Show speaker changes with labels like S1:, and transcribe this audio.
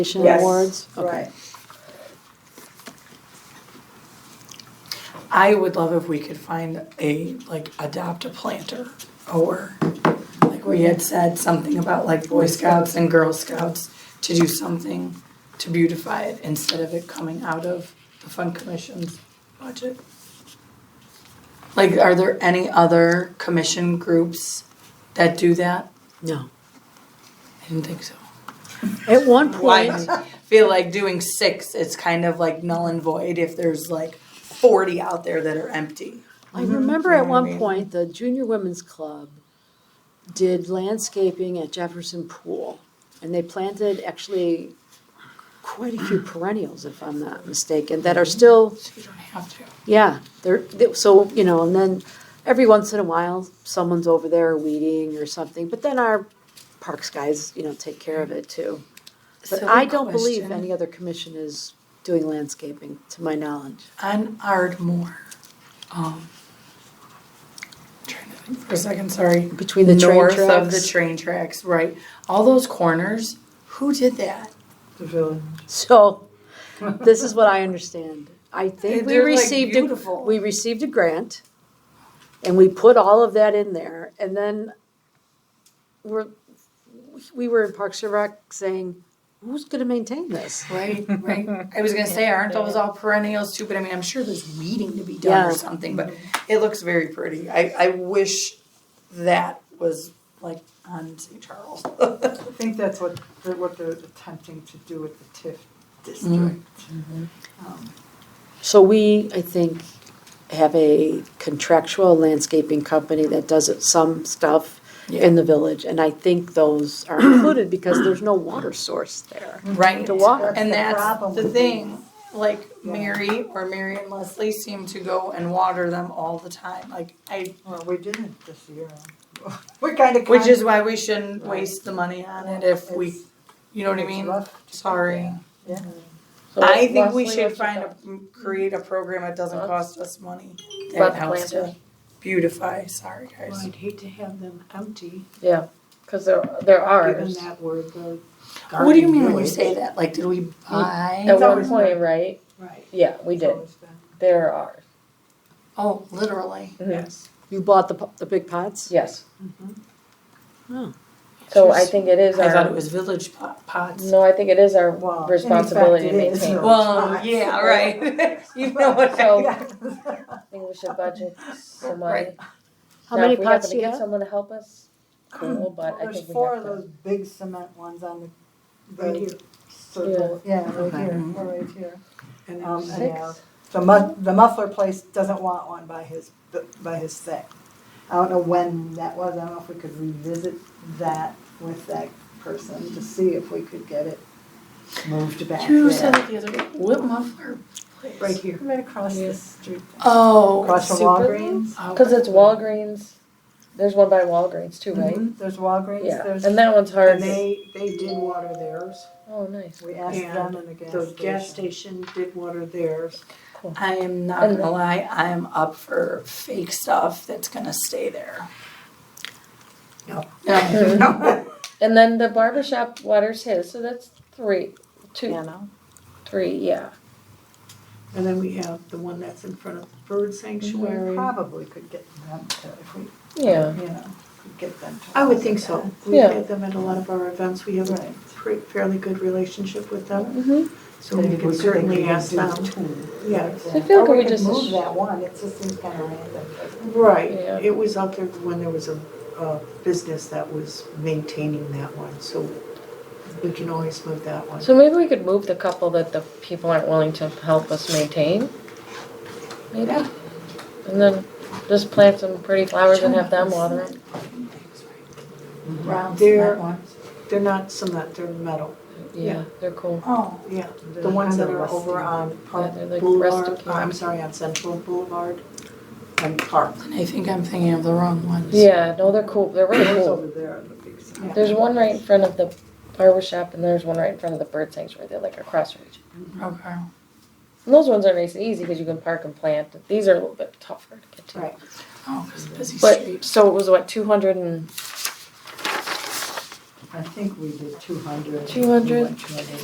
S1: Recognition
S2: Yes.
S1: awards? Oh, Okay.
S2: Right.
S3: I would love if we could find a, like, adopt a planter or, like, we had said something about like Boy Scouts and Girl Scouts to do something to beautify it instead of it coming out of the Fund Commission's budget. Like, are there any other commission groups that do that?
S1: No.
S3: I didn't think so.
S1: At one
S3: Why
S1: point,
S3: I feel like doing six, it's kind of like null and void if there's like forty out there that are empty.
S1: I remember at one
S3: Mhm.
S1: point, the Junior Women's Club did landscaping at Jefferson Pool. And they planted actually quite a few perennials, if I'm not mistaken, that are still,
S3: So you don't have to.
S1: yeah, they're, they- so, you know, and then every once in a while, someone's over there weeding or something. But then our parks guys, you know, take care of it too. But
S3: Silly
S1: I don't believe
S3: question.
S1: any other commission is doing landscaping, to my knowledge.
S3: On Ardmore, um, trying to think for a second, sorry.
S1: Between the train
S3: North of the
S1: tracks.
S3: train tracks, right. All those corners, who did that?
S1: So, this is what I understand. I think we
S3: They're, like,
S1: received, a-
S3: beautiful.
S1: we received a grant and we put all of that in there and then we're, we were in Parks and Rec saying, who's gonna maintain this?
S3: Right, right. I was gonna say, aren't those all perennials too? But I mean, I'm sure there's weeding to be done or
S1: Yeah.
S3: something, but it looks very pretty. I, I wish that was like on St. Charles.
S4: I think that's what, they're- what they're attempting to do with the TIF district.
S3: Mm-hmm.
S4: Um,
S1: So we, I think, have a contractual landscaping company that does it- some stuff in the village. And I think those are included because there's no water source there.
S3: Right.
S1: To water.
S3: And
S4: the
S3: that's
S4: problem
S3: the
S4: with
S3: thing, like Mary or Mary and Leslie seem to go and water them all the time, like I,
S4: Well, we didn't this year. We're kind of.
S3: which is why we shouldn't waste the money on it if we, you know what I mean? Sorry.
S4: Yeah.
S3: I think we should
S5: Leslie, what's your
S3: find a, create a program that doesn't cost us money, that
S5: About the
S3: helps to
S5: planters?
S3: beautify, sorry guys.
S4: I'd hate to have them empty,
S5: Because there, there are.
S4: given that we're the.
S3: What do you mean
S4: garden
S3: when you
S4: village.
S3: say that, like, did
S5: Mm.
S3: we buy,
S5: At one
S4: always
S5: point, right?
S4: Right.
S5: Yeah, we
S4: It's
S5: did.
S4: always been-
S5: There are.
S3: oh, literally,
S4: Yes.
S1: You bought the, po- the big pots?
S5: Yes.
S1: Oh.
S5: So I think it is
S3: I thought it
S5: our,
S3: was village po- pots.
S5: no, I think it is our
S4: Well, in fact,
S5: responsibility to
S4: it is.
S5: maintain. I
S3: Well, yeah, right, you know what I
S5: So-
S4: Yeah.
S5: think we should budget some money.
S3: Right.
S1: How
S5: Now,
S1: many
S5: if we happen
S1: pots
S5: to
S1: do you
S5: get
S1: have?
S5: Someone to help us, cool, but I
S4: Hmm. There's
S5: think we
S4: four of
S5: have to.
S4: those big cement ones on the.
S2: Right here.
S4: Circle, yeah, right
S3: Okay.
S4: here, or right here.
S2: And
S4: Um, and
S5: Six?
S4: now, the mu- the muffler place doesn't want one by his, by his thing. I don't know when that was, I don't know if we could revisit that with that person to see if we could get it moved back
S3: You said
S4: there.
S3: it the other day. What muffler? place?
S4: Right here, right across the street,
S3: Oh.
S4: across from
S3: super-
S4: Walgreens.
S3: oh,
S5: Because it's Walgreens, there's one by Walgreens too, right?
S4: There's Walgreens,
S5: Yeah,
S4: Mm-hmm. there's,
S5: and that one's hard.
S2: And they, they did water theirs.
S5: Oh, nice.
S4: we asked them in the gas
S2: The gas
S4: station.
S2: station did water theirs.
S3: I am not
S5: And-
S3: gonna lie, I am up for fake stuff that's gonna stay there.
S2: No.
S3: No,
S5: And then the barber shop waters his, so that's three, two,
S1: Piano.
S5: three, yeah.
S2: And then we have the one that's in front of the
S5: Mhm.
S2: bird
S4: We
S2: sanctuary.
S4: probably could get them to, if we,
S5: Yeah.
S4: you know, could get them to.
S2: I would think so. We
S5: Yeah.
S2: have them at a lot of our events. We have a
S4: Right.
S2: pre- fairly good relationship with them.
S5: Mm-hmm.
S2: So we
S4: Maybe
S2: could
S4: could
S2: certainly
S4: maybe
S2: ask
S4: do
S2: them.
S4: two.
S2: Yeah.
S5: I feel
S4: Or
S5: like we
S4: could
S5: just-
S4: Move that one, it just seems kind of random.
S2: Right,
S5: Yeah.
S2: it was out there when there was a, a business that was maintaining that one, so we can always move that one.
S5: So maybe we could move the couple that the people aren't willing to help us maintain. Maybe.
S3: Yeah.
S5: And then just plant some pretty flowers and have them water them.
S3: Round
S2: There-
S3: cement ones.
S2: They're not cement, they're metal,
S5: Yeah, they're cool.
S3: Oh,
S2: yeah, the ones that are over on Park
S5: Yeah, they're like
S2: Boulevard,
S5: rustic.
S2: I'm sorry, on Central Boulevard and Park.
S3: and I think I'm thinking of the wrong ones.
S5: Yeah, no, they're cool. They're really
S4: Those
S5: cool.
S4: over there are the big signs.
S5: There's one right in front of the barber shop and there's one right in front of the bird sanctuary. They're like across from each other.
S3: Okay.
S5: And those ones are nice and easy because you can park and plant. These are a little bit tougher to get to.
S4: Right.
S3: Oh, because busy
S5: But
S3: street.
S5: so it was what, 200 and
S4: I think we did two hundred.
S5: 200?